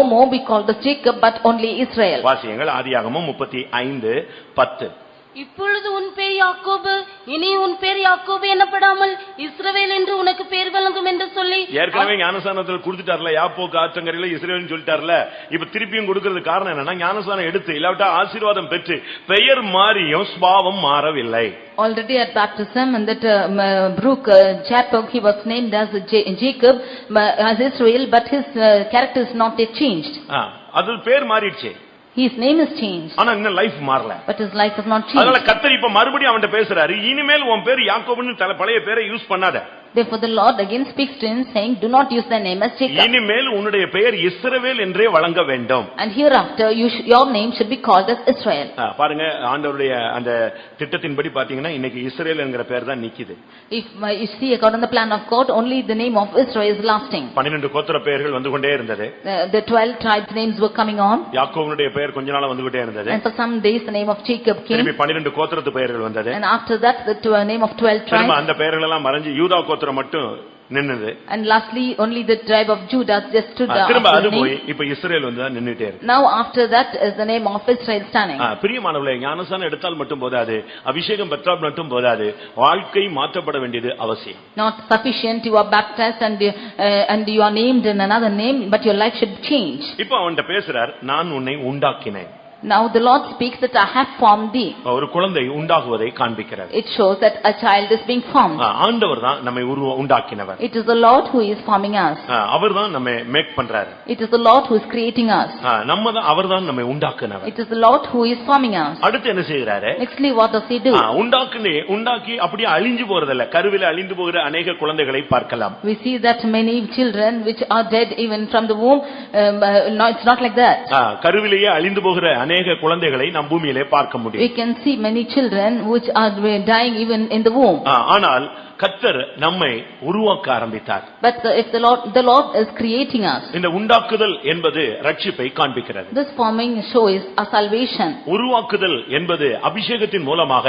No more be called as Jacob, but only Israel. வாசியங்கள் ஆதியாகமும் முப்பத்தி ஐந்து பத்து இப்பொழுது உன் பேர் யாக்கோபு இனி உன் பேர் யாக்கோபு எனப்படாமல் இஸ்ரவேல் என்று உனக்கு பேர் வழங்கும் என்று சொல்லி ஏற்கனவே ஞானஸ்தானத்தில் கொடுத்துட்டார்ல யாப்போக்கு ஆற்றங்கரையில இஸ்ரேல்னு சொல்லிட்டார்ல இப்ப திருப்பியும் கொடுக்கிறது காரணம் என்னன்னா ஞானஸ்தானம் எடுத்து இல்லாவிட்டா ஆசீர்வாதம் பெற்று பெயர் மாறியும் சுபாவம் மாறவில்லை Already at baptism and that uh, m- brook uh, Jacob, he was named as Ja- Jacob, m- uh, as Israel, but his uh, character is not yet changed. ஆ, அது பேர் மாறிடுச்சு His name is changed, ஆனா இன்னும் life மாறல but his life is not அதனால changed. கத்தர் இப்ப மறுபடியும் அவன்கிட்ட பேசுறாரு இனிமேல் உன் பேர் யாக்கோபுன்னு தல- பழைய பேரை யூஸ் பண்ணாத Therefore the Lord again speaks to him saying, "Do not use thy name as Jacob, இனிமேல் உன்னுடைய பெயர் இஸ்ரவேல் என்றே வழங்க வேண்டும் and hereafter you sh- your name should be called as Israel." ஆ, பாருங்க ஆண்டவருடைய அந்த திட்டத்தின்படி பாத்தீங்கன்னா இன்னைக்கு இஸ்ரேல் என்கிற பேர் தான் நிக்குது If uh, you see according to the plan of God, only the name of Israel is lasting. பன்னிரண்டு கோத்திர பெயர்கள் வந்து கொண்டே இருந்தது Uh, The twelve tribes' names were coming on, யாக்கோவனுடைய பெயர் கொஞ்ச நாளா வந்துகிட்டே இருந்தது and for some days the name of Jacob திரும்பி came, பன்னிரண்டு கோத்திரத்து பெயர்கள் வந்தது and after that the tw- name of twelve tribes. திரும்ப அந்த பெயர்கள் எல்லாம் மறைஞ்சு யூதா கோத்திரம் மட்டும் நின்னது And lastly, only the tribe of Judah just stood ah, up. திரும்ப அது the போய் name. இப்ப இஸ்ரேல் வந்து தான் நின்னுட்டே இருக்கு Now after that is the name of Israel standing. ஆ, பிரியமானவர்களே ஞானசானம் எடுத்தால் மட்டும் போதாது அபிஷேகம் பெற்றால் மட்டும் போதாது வாழ்க்கை மாற்றப்பட வேண்டியது அவசியம் Not sufficient, you are baptized and you- uh, and you are named in another name, but your life should change. இப்ப அவன்கிட்ட பேசுறார் நான் உன்னை உண்டாக்கினேன் Now the Lord speaks that I have formed thee. ஒரு குழந்தை உண்டாகுவதை காண்பிக்கிறார் It shows that a child is being formed. ஆ, ஆண்டவர் தான் நம்மை உருவ உண்டாக்கினவர் It is the Lord who is forming us. அவர் தான் நம்ம மேக் பண்றாரு It is the Lord who is creating us. ஆ, நம்ம தான் அவர் தான் நம்மை உண்டாக்குனவர் It is the Lord who is forming us. அடுத்து என்ன செய்கிறாரு Nextly, what does he do? ஆ, உண்டாக்குனே உண்டாக்கி அப்படியே அழிஞ்சு போறதல்ல கருவில அழிந்து போகிற அநேக குழந்தைகளை பார்க்கலாம் We see that many children which are dead even from the womb, um, uh, no, it's not like that. ஆ, கருவிலேயே அழிந்து போகிற அநேக குழந்தைகளை நம் பூமியிலே பார்க்க We முடியும் can see many children which are dying even in the womb. ஆ, ஆனால் கத்தர் நம்மை உருவாக்க ஆரம்பித்தார் But the- if the Lord, the Lord is creating us, இந்த உண்டாக்குதல் என்பது ரட்சிப்பை காண்பிக்கிறது this forming shows our salvation. உருவாக்குதல் என்பது அபிஷேகத்தின் மூலமாக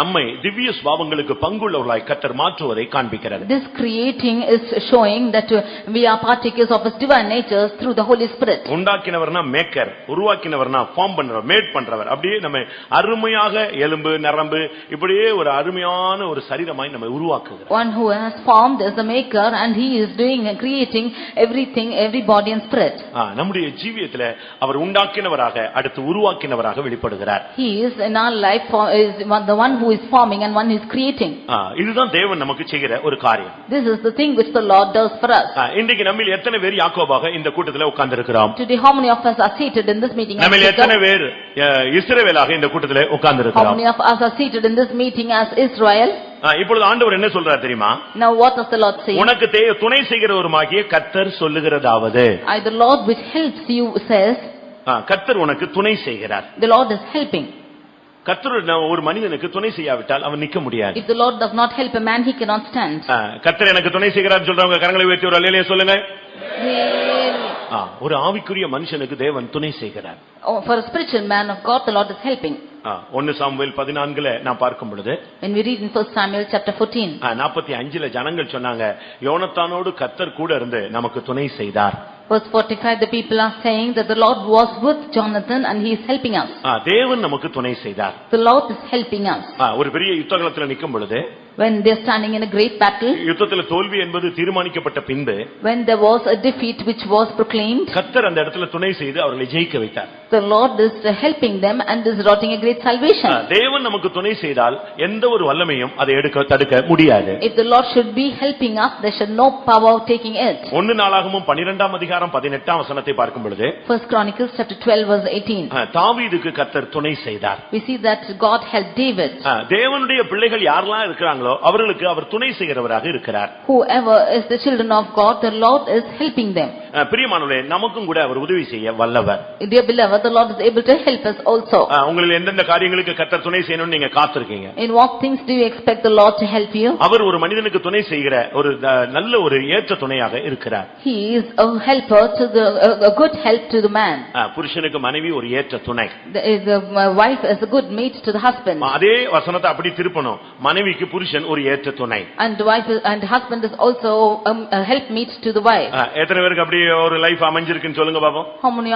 நம்மை திவ்ய சுபாவங்களுக்கு பங்குள்ளவர்களாய் கத்தர் மாற்றுவதை காண்பிக்கிறது This creating is showing that uh, we are partakers of His divine natures through the Holy Spirit. உண்டாக்கினவர்னா மேக்கர் உருவாக்கினவர்னா ஃபார்ம் பண்றவர் மேட் பண்றவர் அப்படியே நம்ம அருமையாக எலும்பு நரம்பு இப்படியே ஒரு அருமையான ஒரு சரீரமாய் நம்மை உருவாக்குகிறார் One who has formed is the maker and he is doing and creating everything, every body and spirit. ஆ, நம்முடைய ஜீவியத்துல அவர் உண்டாக்கினவராக அடுத்து உருவாக்கினவராக வெளிப்படுகிறார் He is in our life, for- is one- the one who is forming and one who is creating. ஆ, இதுதான் தேவன் நமக்கு செய்கிற ஒரு காரியம் This is the thing which the Lord does for us. ஆ, இன்றைக்கு நம்மில் எத்தனை பேர் யாக்கோபாக இந்த கூட்டத்துல உட்கார்ந்திருக்கிறோம் Today, how many of us are seated in this meeting? as நம்மில் Jacob? எத்தனை பேர் அ, இஸ்ரவேலாக இந்த கூட்டத்துல How உட்கார்ந்திருக்கிறோம் many of us are seated in this meeting as Israel? ஆ, இப்பொழுது ஆண்டவர் என்ன சொல்றார் தெரியுமா Now what does the Lord say? உனக்கு தே- துணை செய்கிறவருமாகிய கத்தர் சொல்லுகிறதாவது I, the Lord which helps you says, ஆ, கர்த்தர் உனக்கு துணை செய்கிறார் the Lord is helping. கர்த்தர் ந- ஒரு மனிதனுக்கு துணை செய்யாவிட்டால் அவன் நிக்க முடியாது If the Lord does not help a man, he cannot stand. ஆ, கர்த்தர் எனக்கு துணை செய்கிறார் சொல்றவங்க கரங்களை உயர்த்தி ஒரு அல்லையிலே சொல்லுங்க Really. ஆ, ஒரு ஆவிக்குரிய மனுஷனுக்கு தேவன் துணை செய்கிறார் Oh, For a spiritual man of God, the Lord is helping. ஆ, ஒன்னு சாமுவேல் பதினான்குல நான் பார்க்கும் பொழுது When we read in 1 Samuel chapter 14, ஆ, நாற்பத்தி அஞ்சுல ஜனங்கள் சொன்னாங்க யோனத்தானோடு கர்த்தர் கூட இருந்து நமக்கு துணை செய்தார் verse 45, the people are saying that the Lord was with Jonathan and he is helping us. ஆ, தேவன் நமக்கு துணை செய்தார் The Lord is helping us. ஆ, ஒரு பெரிய யுத்தகலத்துல நிக்கும் பொழுது When they are standing in a great battle, யுத்தத்துல தோல்வி என்பது தீர்மானிக்கப்பட்ட பின்பு when there was a defeat which was proclaimed, கர்த்தர் அந்த இடத்துல துணை செய்து அவர்களை ஜெயிக்க வைத்தார் the Lord is helping them and is rotting a great ah, salvation. தேவன் நமக்கு துணை செய்தால் எந்த ஒரு வல்லமையும் அதை எடுக்க தடுக்க முடியாது If the Lord should be helping us, there should no power of taking it. ஒன்னு நாளாகவும் பனிரெண்டாம் அதிகாரம் பதினெட்டாம் வசனத்தை பார்க்கும் பொழுது First Chronicles chapter 12 verse 18. ஆ, தாவீதுக்கு கர்த்தர் துணை செய்தார் We see that God helped David. ஆ, தேவனுடைய பிள்ளைகள் யாரெல்லாம் இருக்கிறாங்களோ அவர்களுக்கு அவர் துணை செய்கிறவராக இருக்கிறார் Whoever is the children of God, the Lord is helping them. ஆ, பிரியமானவர்களே நமக்கும் கூட அவர் உதவி செய்ய வல்லவர் Dear beloved, the Lord is able to help us ah, also. உங்களில் எந்தெந்த காரியங்களுக்கு கர்த்தர் துணை செய்யணும்னு நீங்க காத்திருக்கீங்க In what things do you expect the Lord to help you? அவர் ஒரு மனிதனுக்கு துணை செய்கிற ஒரு ஆ, நல்ல ஒரு ஏற்ற துணையாக இருக்கிறார் He is a helper to the, a- a good help to the man. ஆ, புருஷனுக்கு மனைவி ஒரு ஏற்ற துணை The, the wife is a good mate to the husband. அதே வசனத்தை அப்படி திருப்பணும் மனைவிக்கு புருஷ புருஷன் ஒரு ஏற்ற துணை And wife and husband is also um, a helpmeet to the wife. Uh, ஆ, எத்தனை பேருக்கு அப்படி ஒரு லைஃப் அமைஞ்சிருக்குன்னு சொல்லுங்க பாப்போம் How many